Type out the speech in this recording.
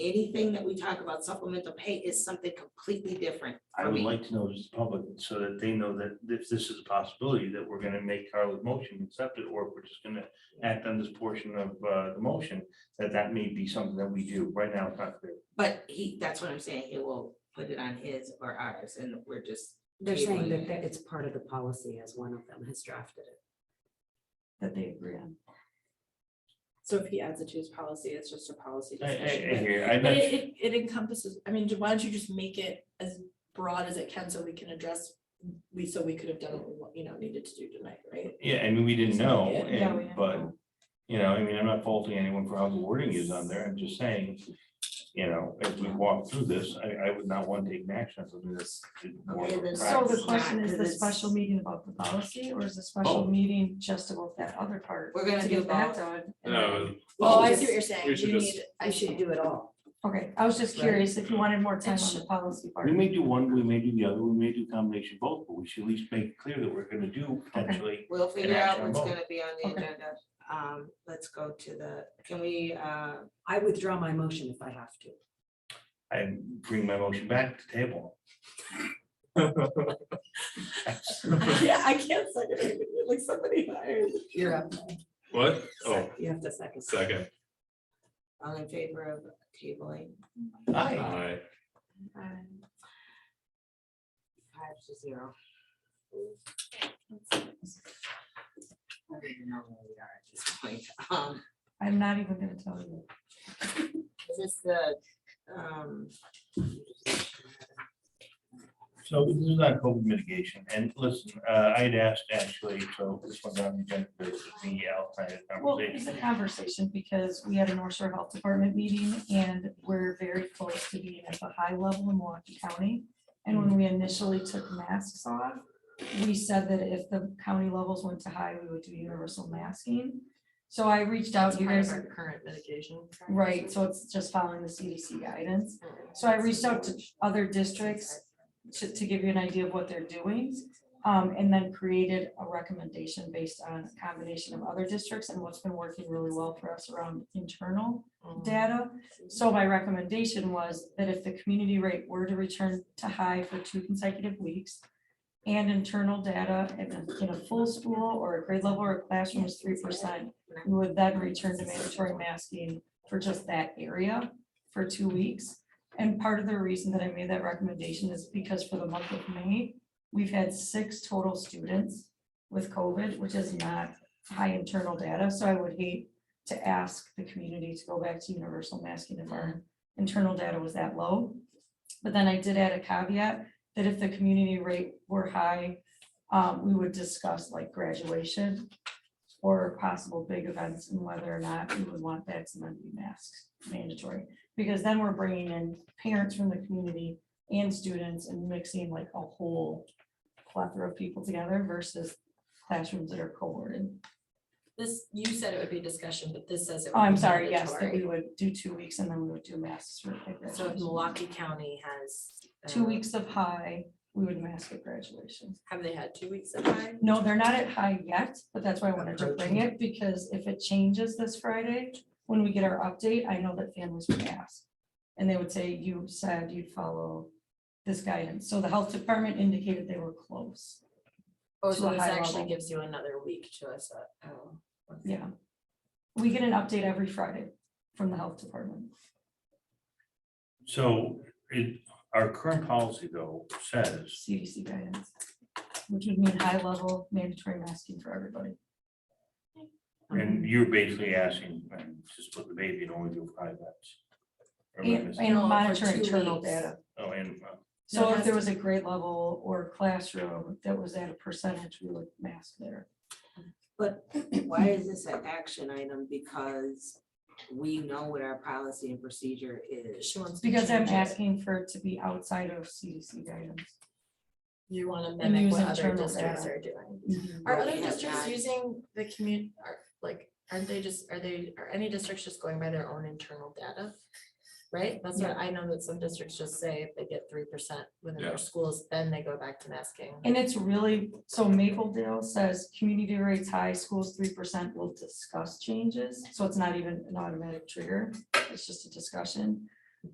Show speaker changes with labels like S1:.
S1: anything that we talk about supplemental pay is something completely different.
S2: I
S1: for
S2: would
S1: me.
S2: like to know as the public, so that they know that if this is a possibility, that we're gonna make Carla's motion accept it, or if we're just gonna act on this portion of uh the motion, that that may be something that we do. Right now, it's not clear.
S1: But he, that's what I'm saying, he will put it on his or ours, and we're just,
S3: They're saying that
S1: Tabling
S3: that it's part of the policy as one of them has drafted it.
S4: that they agree on.
S5: So if he adds it to his policy, it's just a policy
S2: I I
S5: discussion.
S2: I
S5: but-
S2: hear, I'm
S5: But
S2: not,
S5: it, it- it encompasses, I mean, why don't you just make it as broad as it can so we can address, we, so we could have done what we, want- you know, needed to do tonight, right?
S2: yeah, I mean, we didn't
S5: Just make
S2: know,
S5: it-
S2: and-
S5: yeah, we didn't
S2: but,
S5: know.
S2: you know, I mean, I'm not faulting anyone for how the wording is on there. I'm just saying, you know, as we walk through this, I I would not want to take an action on something that's more of
S1: Okay,
S2: a
S1: then-
S4: So
S2: practice.
S4: the question
S1: Right,
S4: is the
S1: 'cause it's-
S4: special meeting about the policy or is the special
S2: Both.
S4: meeting just about that other part?
S1: We're gonna
S4: to
S1: do
S4: get that
S1: both.
S4: done? And then-
S6: No,
S5: Oh, I see what you're saying.
S6: We should
S5: You
S6: just-
S5: need-
S3: I should do it all.
S4: Okay, I was just
S3: Right.
S4: curious if you wanted more time on
S5: should-
S4: the policy part.
S2: We may do one, we may do the other, we may do combination of both, but we should at least make it clear that we're gonna do potentially.
S1: we'll figure out
S2: action on
S1: what's
S2: both.
S1: gonna be on the
S4: Okay.
S1: agenda. Um, let's go to the, can we, uh,
S3: I withdraw my motion if I have to.
S2: I bring my motion back to table.
S5: Yeah, I can't second it, like somebody hired.
S3: You're up.
S6: what? Oh,
S3: You have to second.
S6: second.
S1: all in favor of tabling?
S2: Aye.
S6: Aye.
S1: Um, Five to zero. I don't even know where we are at this point. Um,
S4: I'm not even gonna tell you.
S1: is this the, um,
S2: So this is not COVID mitigation, and listen, uh, I'd asked actually, so this one's on the agenda, but it's the outside
S4: Well, it's
S2: conversation.
S4: a conversation because we had a North Shore Health Department meeting and we're very close to being at the high level in Milwaukee County. And when we initially took masks off, we said that if the county levels went to high, we would do universal masking. So I reached out, you guys,
S5: current medication.
S4: right, so it's just following the CDC guidance. So I reached out to other districts to, to give you an idea of what they're doing. Um, and then created a recommendation based on a combination of other districts and what's been working really well for us around internal data. So my recommendation was that if the community rate were to return to high for two consecutive weeks and internal data in a, in a full school or a grade level or a classroom is three percent, we would then return to mandatory masking for just that area for two weeks. And part of the reason that I made that recommendation is because for the month of May, we've had six total students with COVID, which is not high internal data, so I would hate to ask the community to go back to universal masking if our internal data was that low. But then I did add a caveat that if the community rate were high, um, we would discuss like graduation or possible big events and whether or not we would want vaccinated masks mandatory. Because then we're bringing in parents from the community and students and mixing like a whole plethora of people together versus classrooms that are cohorted.
S5: This, you said it would be discussion, but this says it.
S4: Oh,
S5: would
S4: I'm
S5: be
S4: sorry, yes, that
S5: mandatory.
S4: we would do two weeks and then we would do masks for like
S5: So if
S4: graduation.
S5: Milwaukee County has.
S4: Two
S5: uh,
S4: weeks of high, we would mask at graduation.
S5: Have they had two weeks of time?
S4: No, they're not at high yet, but that's why I wanted to bring it, because if it changes this Friday, when we get our update, I know that families would ask. And they would say, you said you'd follow this guidance. So the health department indicated they were close.
S5: Oh,
S4: To
S5: so
S4: a
S5: this
S4: high
S5: actually
S4: level.
S5: gives you another week to us, uh, oh. okay.
S4: Yeah. We get an update every Friday from the health department.
S2: So it, our current policy though says,
S4: CDC guidance, which would mean high level mandatory masking for everybody. Mm-hmm.
S2: and you're basically asking, and just put the baby and only do five vets. Or am I
S4: And,
S2: missing-
S4: and
S5: No, for
S4: monitor
S5: two
S4: internal
S5: weeks.
S4: data.
S2: Oh, and, uh,
S5: No,
S4: So
S5: it
S4: if
S5: has
S4: there
S5: to
S4: was a grade level or classroom that was at a percentage, we would mask there.
S1: But why is this an action item? Because we know what our policy and procedure is.
S5: She wants. to
S4: Because I'm
S5: change it.
S4: asking for it to be outside of CDC guidance.
S5: You wanna
S4: And
S5: mimic
S4: use
S5: what other
S4: internal
S5: districts
S4: data.
S5: are doing.
S1: But
S5: Are other
S1: we have
S5: districts
S1: not-
S5: using the commu, are, like, aren't they just, are they, are any districts just going by their own internal data? Right? That's what I know that some districts just say if they get three percent within
S6: Yeah.
S5: their schools, then they go back to masking.
S4: And it's really, so Maple Dale says community rates high, schools three percent will discuss changes. So it's not even an automatic trigger. It's just a discussion.